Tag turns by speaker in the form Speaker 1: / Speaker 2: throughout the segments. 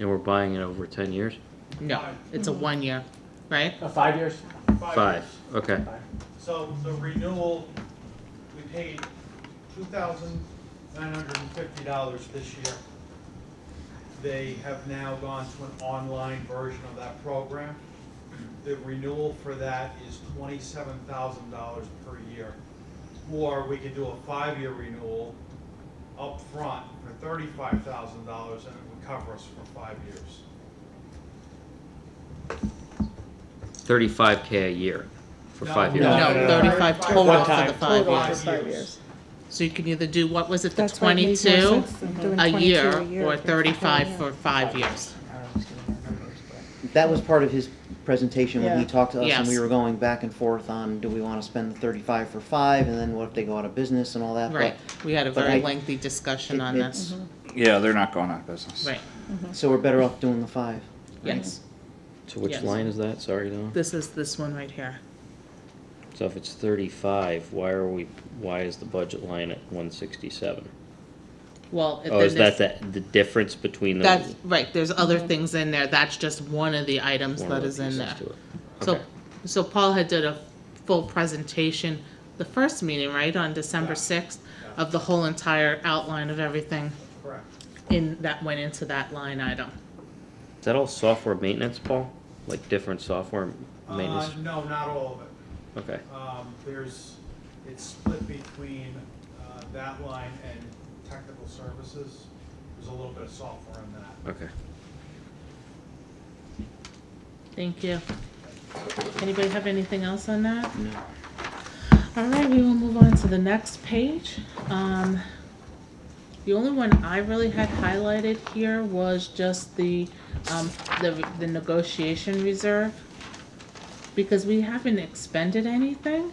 Speaker 1: And we're buying it over ten years?
Speaker 2: No, it's a one year, right?
Speaker 3: Uh, five years?
Speaker 1: Five,
Speaker 4: years.
Speaker 1: okay,
Speaker 4: So the renewal, we paid two thousand nine hundred and fifty dollars this year. They have now gone to an online version of that program. The renewal for that is twenty-seven thousand dollars per year. Or we could do a five-year renewal up front for thirty-five thousand dollars and it would cover us for five years.
Speaker 1: thirty-five K a year for
Speaker 4: No,
Speaker 1: five
Speaker 3: no.
Speaker 1: years.
Speaker 2: No, thirty-five total
Speaker 3: One
Speaker 2: for the
Speaker 3: time.
Speaker 2: five
Speaker 4: Total.
Speaker 2: years.
Speaker 4: Five
Speaker 5: Five
Speaker 4: years.
Speaker 5: years.
Speaker 2: So you can either do, what was it, the
Speaker 5: That's what makes more
Speaker 2: twenty-two
Speaker 5: sense than doing
Speaker 2: a
Speaker 5: 22
Speaker 2: year or
Speaker 5: if it's
Speaker 2: thirty-five
Speaker 5: five
Speaker 2: for
Speaker 5: years.
Speaker 2: five years?
Speaker 6: That was part of his presentation when he
Speaker 5: Yeah.
Speaker 6: talked to us and we
Speaker 2: Yes.
Speaker 6: were going back and forth on, do we wanna spend the thirty-five for five and then what if they go out of business and all that? but
Speaker 2: Right, we had a
Speaker 6: but
Speaker 2: very
Speaker 6: I-
Speaker 2: lengthy discussion
Speaker 6: it-
Speaker 2: on
Speaker 6: it's-
Speaker 2: this,
Speaker 5: Mm-hmm,
Speaker 7: Yeah, they're not going out of
Speaker 1: Mhm.
Speaker 7: business.
Speaker 2: right,
Speaker 6: So we're better off doing the five.
Speaker 2: yes.
Speaker 1: So which
Speaker 2: Yes.
Speaker 1: line is that, sorry, Don?
Speaker 2: This is this one right here.
Speaker 1: So if it's thirty-five, why are we, why is the budget line at one sixty-seven?
Speaker 2: Well, if
Speaker 1: Oh, is
Speaker 2: there's-
Speaker 1: that the, the difference between the?
Speaker 2: That's, right, there's other things in there, that's just one of the items
Speaker 1: one of
Speaker 2: that
Speaker 1: the
Speaker 2: is in
Speaker 1: pieces
Speaker 2: there.
Speaker 1: to it?
Speaker 2: So,
Speaker 1: Okay.
Speaker 2: so Paul had did a full presentation, the first meeting, right, on December
Speaker 4: Yeah.
Speaker 2: sixth,
Speaker 4: Yeah.
Speaker 2: of the whole entire outline of everything
Speaker 4: Correct.
Speaker 2: in, that went into that line item.
Speaker 1: Is that all software maintenance, Paul? Like different software
Speaker 4: Uh,
Speaker 1: maintenance?
Speaker 4: no, not all of it.
Speaker 1: Okay,
Speaker 4: Um, there's, it's split between, uh, that line and technical services. There's a little bit of software in that.
Speaker 1: okay.
Speaker 2: Thank you. Anybody have anything else on that?
Speaker 6: No.
Speaker 2: All right, we will move on to the next page. Um, the only one I really had highlighted here was just the, um, the, the negotiation reserve. Because we haven't expended anything.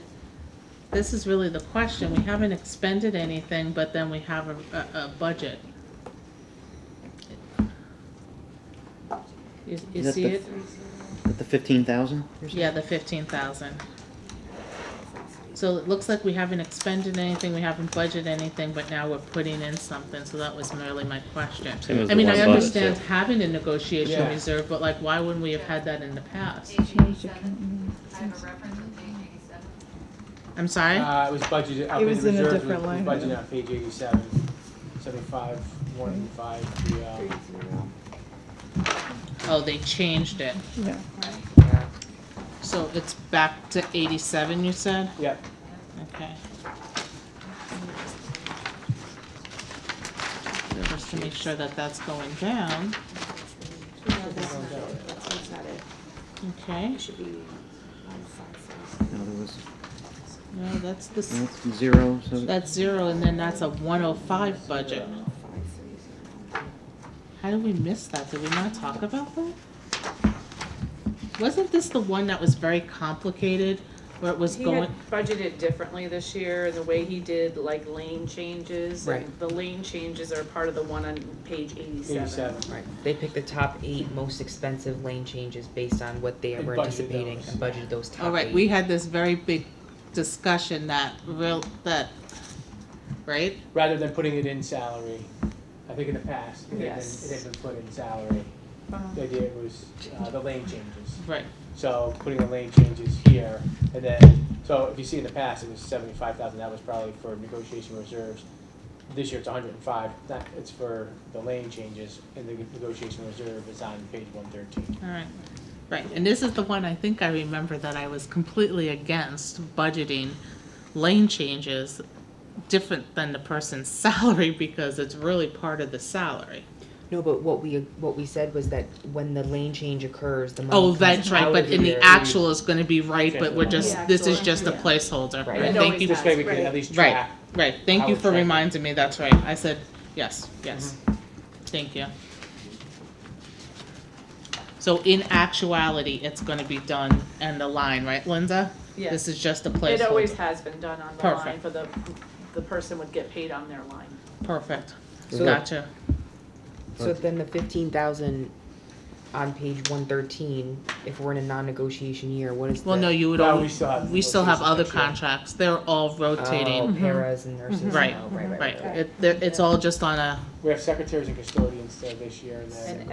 Speaker 2: This is really the question. We haven't expended anything, but then we have a, a, a budget. You, you
Speaker 6: Is that
Speaker 2: see
Speaker 6: the-
Speaker 2: it?
Speaker 6: At the fifteen thousand?
Speaker 2: Yeah, the fifteen thousand. So it looks like we haven't expended anything, we haven't budgeted anything, but now we're putting in something, so that was merely my question.
Speaker 1: Same as the
Speaker 2: I mean,
Speaker 1: one
Speaker 2: I
Speaker 1: above it,
Speaker 2: understand
Speaker 1: too.
Speaker 2: having a negotiation
Speaker 3: Yeah.
Speaker 2: reserve, but like, why wouldn't we have had that in the past?
Speaker 8: Page eighty-seven, I have a reference on page eighty-seven.
Speaker 2: I'm sorry?
Speaker 3: Uh, it was budgeted, up
Speaker 5: It
Speaker 3: in
Speaker 5: was in a
Speaker 3: reserves,
Speaker 5: different
Speaker 3: was-
Speaker 5: line
Speaker 3: was budgeted
Speaker 5: item.
Speaker 3: on page eighty-seven, seventy-five, one eighty-five, the, uh,
Speaker 2: Oh, they changed it.
Speaker 5: Yeah.
Speaker 2: So it's back to eighty-seven, you said?
Speaker 3: yeah,
Speaker 2: Okay. Just to make sure that that's going down,
Speaker 9: That's not it. That's not it.
Speaker 2: okay?
Speaker 9: It should be
Speaker 6: No, there was,
Speaker 2: No, that's the, s-
Speaker 6: that's zero, so.
Speaker 2: that's zero, and then that's a one oh five budget. How did we miss that? Did we not talk about that? Wasn't this the one that was very complicated, where it was
Speaker 9: He had
Speaker 2: going,
Speaker 9: budgeted differently this year, and the way he did like lane changes. and
Speaker 10: Right.
Speaker 9: The lane changes are part of the one on page eighty-seven.
Speaker 3: eighty-seven.
Speaker 10: Right, they picked the top eight most expensive lane changes based on what they
Speaker 3: And
Speaker 10: were
Speaker 3: budgeted
Speaker 10: anticipating
Speaker 3: those.
Speaker 10: and budgeted those top eight.
Speaker 2: all right, we had this very big discussion that real, that, right?
Speaker 3: Rather than putting it in salary, I think in the past, it had been,
Speaker 9: Yes.
Speaker 3: it had been put in salary. The idea was, uh, the lane changes.
Speaker 2: Right.
Speaker 3: So putting the lane changes here, and then, so if you see in the past, it was seventy-five thousand, that was probably for negotiation reserves. This year it's hundred and five, that, it's for the lane changes, and the negotiation reserve is on page one thirteen.
Speaker 2: All right, right, and this is the one I think I remember that I was completely against budgeting lane changes different than the person's salary because it's really part of the salary.
Speaker 10: No, but what we, what we said was that when the lane change occurs, the money
Speaker 2: Oh,
Speaker 10: comes
Speaker 2: that's right,
Speaker 10: out
Speaker 2: but
Speaker 10: of
Speaker 2: in the
Speaker 10: here.
Speaker 2: actual is gonna be right, but we're
Speaker 3: Yeah.
Speaker 2: just, this is just a
Speaker 9: Yeah.
Speaker 2: placeholder.
Speaker 10: Right.
Speaker 2: Right,
Speaker 9: It
Speaker 2: thank
Speaker 9: always
Speaker 2: you,
Speaker 3: This way we
Speaker 9: Right.
Speaker 3: can at least
Speaker 2: Right.
Speaker 3: track.
Speaker 2: right, thank you
Speaker 3: How
Speaker 2: for
Speaker 3: it's Mm-hmm.
Speaker 2: reminding me, that's right, I said, yes, yes, thank you. So in actuality, it's gonna be done and the line, right, Linda?
Speaker 9: Yes.
Speaker 2: This is just a placeholder.
Speaker 9: It always has been done on the line,
Speaker 2: Perfect.
Speaker 9: for the, the person would get paid on their line.
Speaker 2: Perfect.
Speaker 10: So-
Speaker 2: Gotcha.
Speaker 10: So then the fifteen thousand on page one thirteen, if we're in a non-negotiation year, what is the?
Speaker 2: Well, no, you would
Speaker 3: No,
Speaker 2: all,
Speaker 3: we still have
Speaker 2: we still have
Speaker 3: negotiations
Speaker 2: other
Speaker 3: next year.
Speaker 2: contracts. They're all
Speaker 10: Oh,
Speaker 2: rotating. Mm-hmm.
Speaker 10: paras and nurses, oh,
Speaker 2: Right,
Speaker 10: right, right, right,
Speaker 2: Right.
Speaker 10: right.
Speaker 2: It, they're- it's all just on a,
Speaker 3: We have secretaries and custodians there this year, and then.
Speaker 9: And